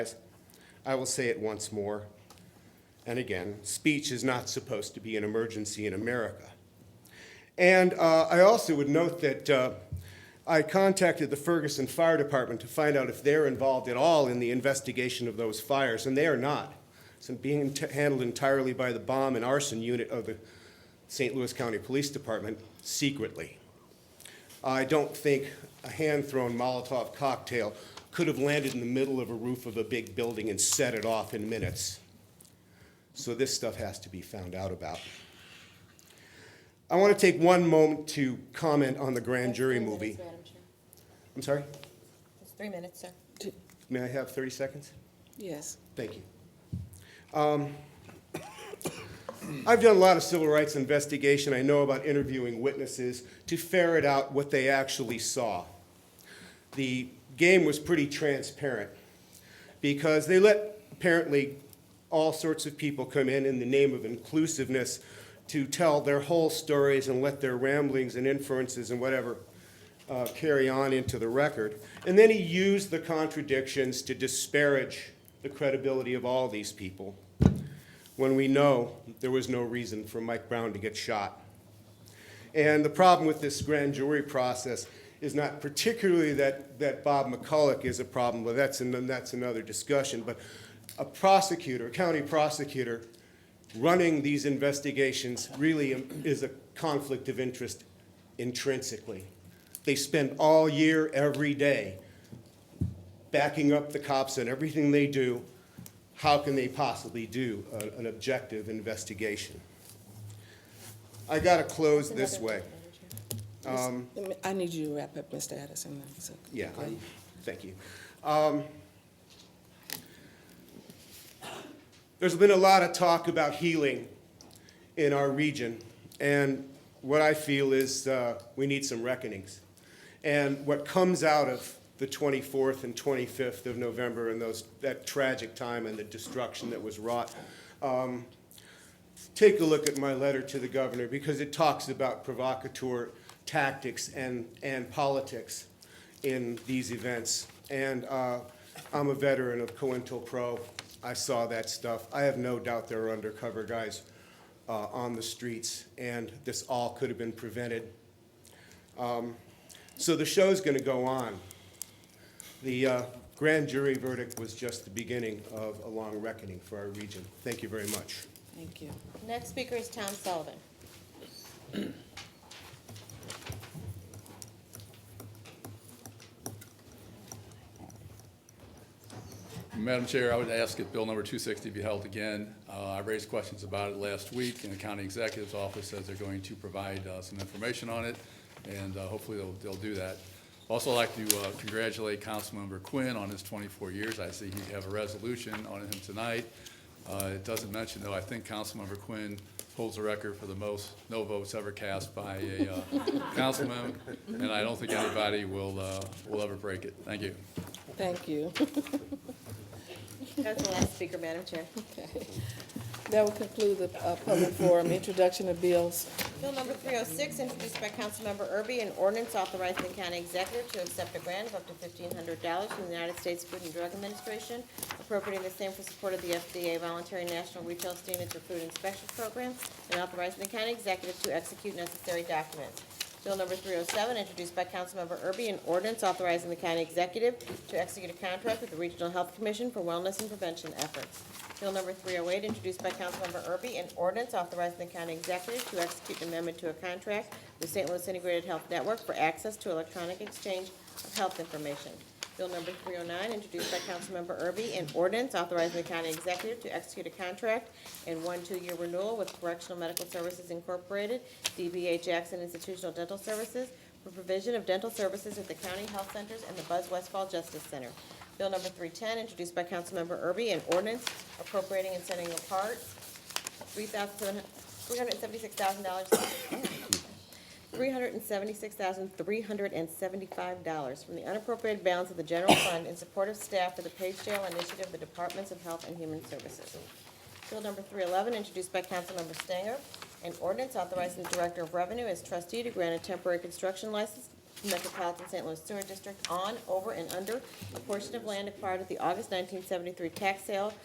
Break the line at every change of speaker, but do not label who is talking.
Guys, I will say it once more and again, speech is not supposed to be an emergency in America. And uh, I also would note that uh, I contacted the Ferguson Fire Department to find out if they're involved at all in the investigation of those fires, and they are not. It's being t- handled entirely by the bomb and arson unit of the St. Louis County Police Department secretly. I don't think a hand-thrown Molotov cocktail could have landed in the middle of a roof of a big building and set it off in minutes. So this stuff has to be found out about. I want to take one moment to comment on the grand jury movie. I'm sorry,
It's three minutes, sir.
may I have 30 seconds?
Yes.
Thank you. Um, I've done a lot of civil rights investigation. I know about interviewing witnesses to ferret out what they actually saw. The game was pretty transparent because they let apparently all sorts of people come in in the name of inclusiveness to tell their whole stories and let their ramblings and inferences and whatever uh, carry on into the record. And then he used the contradictions to disparage the credibility of all these people when we know there was no reason for Mike Brown to get shot. And the problem with this grand jury process is not particularly that, that Bob McCulloch is a problem, but that's, an, that's another discussion. But a prosecutor, a county prosecutor, running these investigations really is a conflict of interest intrinsically. They spend all year, every day, backing up the cops and everything they do. How can they possibly do a- an objective investigation? I gotta close this way.
I need you to wrap up, Mr. Addison. So-
Yeah,
Go ahead.
thank you. Um, There's been a lot of talk about healing in our region, and what I feel is uh, we need some reckonings. And what comes out of the 24th and 25th of November and those, that tragic time and the destruction that was wrought, um, take a look at my letter to the governor because it talks about provocateur tactics and, and politics in these events. And uh, I'm a veteran of COINTELPRO. I saw that stuff. I have no doubt there are undercover guys uh, on the streets, and this all could have been prevented. Um, So the show's going to go on. The uh, grand jury verdict was just the beginning of a long reckoning for our region. Thank you very much.
Thank you.
Next speaker is Tom Sullivan.
Madam Chair, I would ask if Bill number 260 be held again. Uh, I raised questions about it last week, and the county executive's office says they're going to provide uh, some information on it, and uh, hopefully they'll, they'll do that. Also, I'd like to uh, congratulate Councilmember Quinn on his 24 years. I see you have a resolution on him tonight. Uh, It doesn't mention, though, I think Councilmember Quinn holds the record for the most no votes ever cast by a uh, councilman, and I don't think anybody will, uh, will ever break it. Thank you.
Thank you.
That's the last speaker, Madam Chair.
Okay. That will conclude the uh, public forum. Introduction of bills.
Bill number three oh six, introduced by Councilmember Erby, an ordinance authorizing the county executive to accept a grant of up to fifteen hundred dollars from the United States Food and Drug Administration, appropriating the same for support of the FDA Voluntary National Retail Standards for Food Inspection Program, and authorizing the county executive to execute necessary documents. Bill number three oh seven, introduced by Councilmember Erby, an ordinance authorizing the county executive to execute a contract with the Regional Health Commission for wellness and prevention efforts. Bill number three oh eight, introduced by Councilmember Erby, an ordinance authorizing the county executive to execute an amendment to a contract with St. Louis Integrated Health Network for access to electronic exchange of health information. Bill number three oh nine, introduced by Councilmember Erby, an ordinance authorizing the county executive to execute a contract and one two-year renewal with Correctional Medical Services Incorporated, DBA Jackson Institutional Dental Services, for provision of dental services at the county health centers and the Buzz Westfall Justice Center. Bill number three ten, introduced by Councilmember Erby, an ordinance appropriating and setting apart three thousand seven, three hundred and seventy-six thousand dollars three hundred and seventy-six thousand, three hundred and seventy-five dollars from the unappropriated balance of the general fund in support of staff for the Page Jail Initiative, the Departments of Health and Human Services. Bill number three eleven, introduced by Councilmember Stanger, an ordinance authorizing the Director of Revenue as trustee to grant a temporary construction license Metropolitan St. Louis Sewer District on, over, and under a portion of land acquired at the August nineteen seventy-three tax sale